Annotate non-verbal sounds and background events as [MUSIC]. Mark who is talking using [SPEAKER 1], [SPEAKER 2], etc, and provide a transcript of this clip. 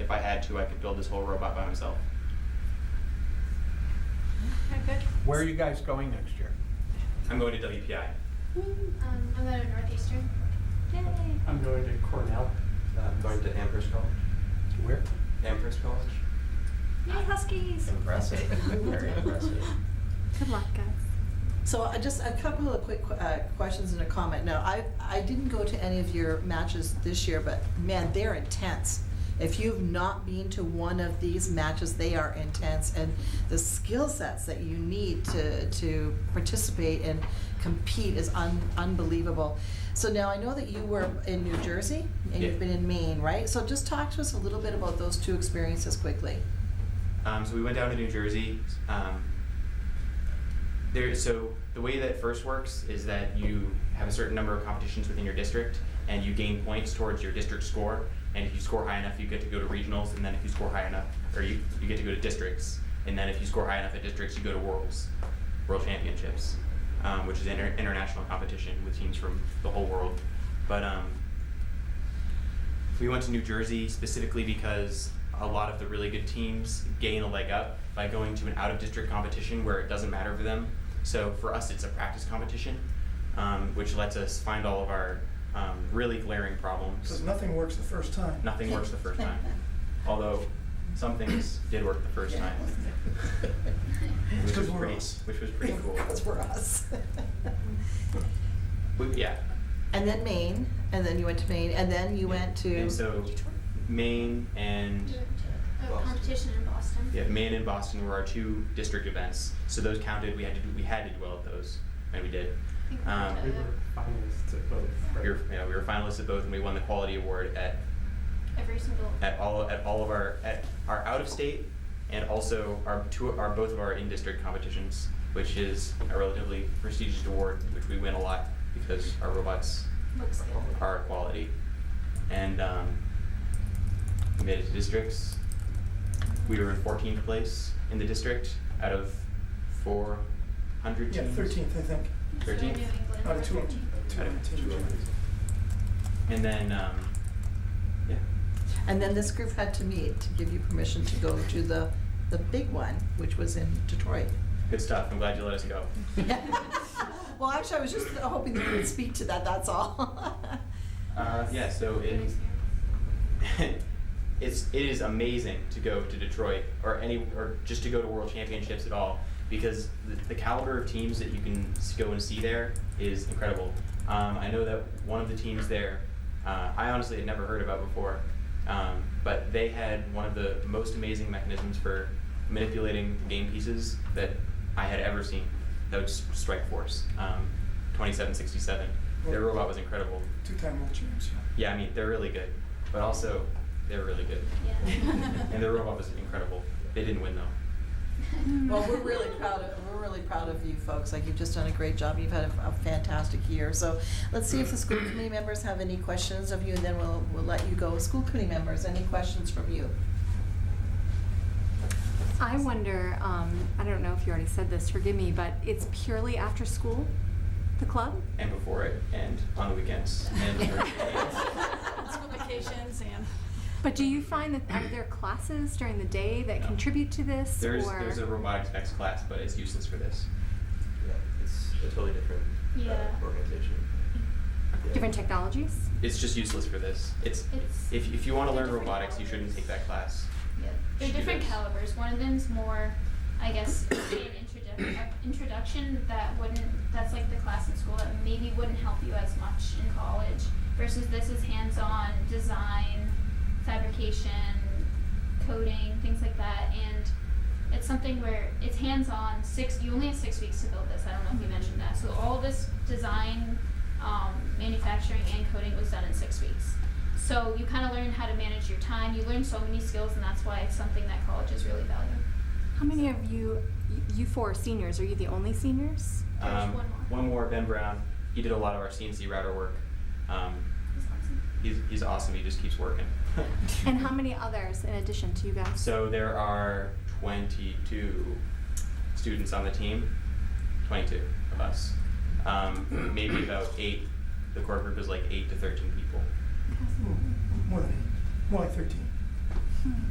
[SPEAKER 1] if I had to, I could build this whole robot by myself.
[SPEAKER 2] Okay,
[SPEAKER 3] Where are you guys going next year?
[SPEAKER 1] I'm going to
[SPEAKER 4] Uh,
[SPEAKER 1] WPI.
[SPEAKER 5] Um, I'm going to Northeastern. [LAUGHS]
[SPEAKER 2] good. Yay.
[SPEAKER 6] I'm going to Cornell.
[SPEAKER 4] I'm going to Amherst College.
[SPEAKER 3] Where?
[SPEAKER 4] Amherst College?
[SPEAKER 2] Yay, Huskies. [LAUGHS]
[SPEAKER 4] Impressive. Very impressive.
[SPEAKER 2] Good luck, guys.
[SPEAKER 7] So I just a couple of quick uh, questions and a comment. Now, I, I didn't go to any of your matches this year, but man, they're intense. If you've not been to one of these matches, they are intense, and the skill sets that you need to, to participate and compete is un- unbelievable. So now I know that you were in New Jersey and
[SPEAKER 1] Yeah.
[SPEAKER 7] you've been in Maine, right? So just talk to us a little bit about those two experiences quickly.
[SPEAKER 1] Um, so we went down to New Jersey. Um, there, so the way that first works is that you have a certain number of competitions within your district, and you gain points towards your district score. And if you score high enough, you get to go to regionals, and then if you score high enough, or you, you get to go to districts, and then if you score high enough at districts, you go to worlds, world championships, um, which is an inter- international competition with teams from the whole world. But um, we went to New Jersey specifically because a lot of the really good teams gain a leg up by going to an out of district competition where it doesn't matter for them. So for us, it's a practice competition, um, which lets us find all of our um, really glaring problems.
[SPEAKER 8] Because nothing works the first time.
[SPEAKER 1] Nothing works the first time, although some things did work the first time, which was
[SPEAKER 8] Because we're
[SPEAKER 1] pretty,
[SPEAKER 8] us.
[SPEAKER 1] which was pretty
[SPEAKER 7] [LAUGHS]
[SPEAKER 1] cool.
[SPEAKER 7] Because we're us.
[SPEAKER 1] We- yeah.
[SPEAKER 7] And then Maine, and then you went to Maine, and then you went to.
[SPEAKER 1] And so Maine and.
[SPEAKER 5] A
[SPEAKER 4] Boston.
[SPEAKER 5] competition in Boston.
[SPEAKER 1] Yeah, Maine and Boston were our two district events, so those counted. We had to do, we had to do well at those, and we did.
[SPEAKER 5] I think we
[SPEAKER 1] Um,
[SPEAKER 5] did
[SPEAKER 6] We were finalists at both. right?
[SPEAKER 1] We were, yeah, we were finalists at both, and we won the quality award at,
[SPEAKER 5] Every single.
[SPEAKER 1] at all at all of our at our out of state and also our two our both of our in district competitions, which is a relatively prestigious award, which we win a lot because our robots
[SPEAKER 5] Looks good.
[SPEAKER 1] are quality, and um, we made it to districts. We were in 14th place in the district out of 400
[SPEAKER 8] Yeah,
[SPEAKER 1] teams.
[SPEAKER 8] thirteenth, I think,
[SPEAKER 5] So New
[SPEAKER 1] 13th?
[SPEAKER 5] England
[SPEAKER 8] out of
[SPEAKER 5] were
[SPEAKER 8] two, two
[SPEAKER 5] 13th.
[SPEAKER 8] teams.
[SPEAKER 1] And then, um, yeah,
[SPEAKER 7] And then this group had to meet to give you permission to go to the, the big one, which was in Detroit.
[SPEAKER 1] good stuff. I'm glad you let us go.
[SPEAKER 5] [LAUGHS]
[SPEAKER 7] Well, actually, I was just hoping that you would speak to that, that's all. [LAUGHS]
[SPEAKER 1] Uh, yeah, so it,
[SPEAKER 5] Pretty scary.
[SPEAKER 1] [LAUGHS] it's it is amazing to go to Detroit or any or just to go to World Championships at all because the, the caliber of teams that you can s- go and see there is incredible. Um, I know that one of the teams there, uh, I honestly had never heard about before, um, but they had one of the most amazing mechanisms for manipulating the game pieces that I had ever seen. That was Strike Force, um, 2767. Their robot was incredible.
[SPEAKER 8] Two-time world champs, yeah.
[SPEAKER 1] Yeah, I mean, they're really good, but also they're really
[SPEAKER 5] [LAUGHS]
[SPEAKER 1] good.
[SPEAKER 5] Yeah.
[SPEAKER 1] And their robot was incredible. They didn't win though.
[SPEAKER 7] Well, we're really proud of, we're really proud of you folks, like, you've just done a great job, you've had a, a fantastic year. So let's see if the school committee members have any questions of you, and then we'll, we'll let you go. School committee members, any questions from you?
[SPEAKER 2] I
[SPEAKER 7] [LAUGHS]
[SPEAKER 2] wonder, um, I don't know if you already said this, forgive me, but it's purely after school, the club?
[SPEAKER 1] And before it, and on the weekends,
[SPEAKER 5] [LAUGHS]
[SPEAKER 1] and during the weekends.
[SPEAKER 2] School vacations and. But do you find that are there classes during the day that
[SPEAKER 1] No.
[SPEAKER 2] contribute to this?
[SPEAKER 1] There's
[SPEAKER 2] or?
[SPEAKER 1] there's a robotics next class, but it's useless for this.
[SPEAKER 4] Yeah, it's a totally different
[SPEAKER 5] Yeah.
[SPEAKER 4] uh, organization. Yeah.
[SPEAKER 2] Different technologies?
[SPEAKER 1] It's just useless for this. It's,
[SPEAKER 5] It's-
[SPEAKER 1] if if you want to
[SPEAKER 5] they're
[SPEAKER 1] learn
[SPEAKER 5] different
[SPEAKER 1] robotics, you shouldn't take that class.
[SPEAKER 5] Yeah. They're
[SPEAKER 1] Should do
[SPEAKER 5] different
[SPEAKER 1] this.
[SPEAKER 5] calibers. One of them's more, I guess, [COUGHS] it'd be an introdu- uh, introduction that wouldn't, that's like the class in school that maybe wouldn't help you as much in college versus this is hands on design, fabrication, coding, things like that. And it's something where it's hands on, six, you only have six weeks to build this. I don't know if you mentioned that. So all this design, um, manufacturing, and coding was done in six weeks. So you kind of learn how to manage your time. You learn so many skills, and that's why it's something that colleges really value.
[SPEAKER 2] How many of you, you- you four are seniors, are you the only seniors?
[SPEAKER 5] There's
[SPEAKER 1] Um,
[SPEAKER 5] one more.
[SPEAKER 1] Ben Brown. He did a lot of our CNC router work. Um,
[SPEAKER 5] It's awesome.
[SPEAKER 1] he's he's awesome. He just keeps working. [LAUGHS]
[SPEAKER 2] And how many others in addition to you guys?
[SPEAKER 1] So there are 22 students on the team, 22 of us. Um, maybe about eight. The core group is like eight to 13 people.
[SPEAKER 8] Hmm, More than eight, more like thirteen.
[SPEAKER 5] Hmm.